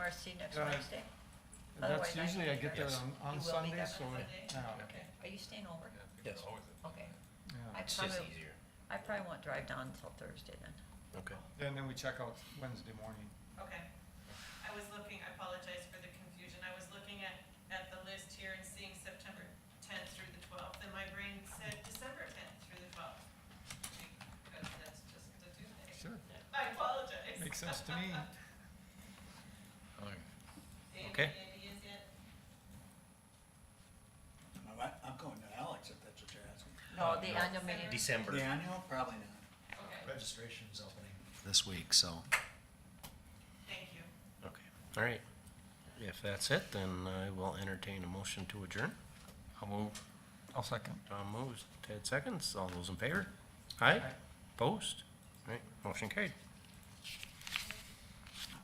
RC next Uh, Wednesday? That's Otherwise, I usually I can get be there there. on, You will on be Sunday, there so, on it- yeah, Okay. Are you staying over? Yes. Okay. yeah. I It's just probably, easier. I probably won't drive down until Thursday then. Okay. And then we check out Wednesday morning. Okay. I was looking, I apologize for the confusion. I was looking at, at the list here and seeing September tenth through the twelfth, and my brain said December tenth through the twelfth. Because that's just a Tuesday. Sure, I apologize. makes sense to me. Andy, Okay. Andy E is it? I'm- I'm going to Alex if that's what you're asking. No, the no. annual meeting, December. The annual, probably not. Okay, Registration's opening this week, so. thank you. Okay. All right. If that's it, then I will entertain a motion to adjourn. I'll move. I'll second. Tom moves, Ted seconds. All those in favor? Aye. Aye. Post. All right, motion carried.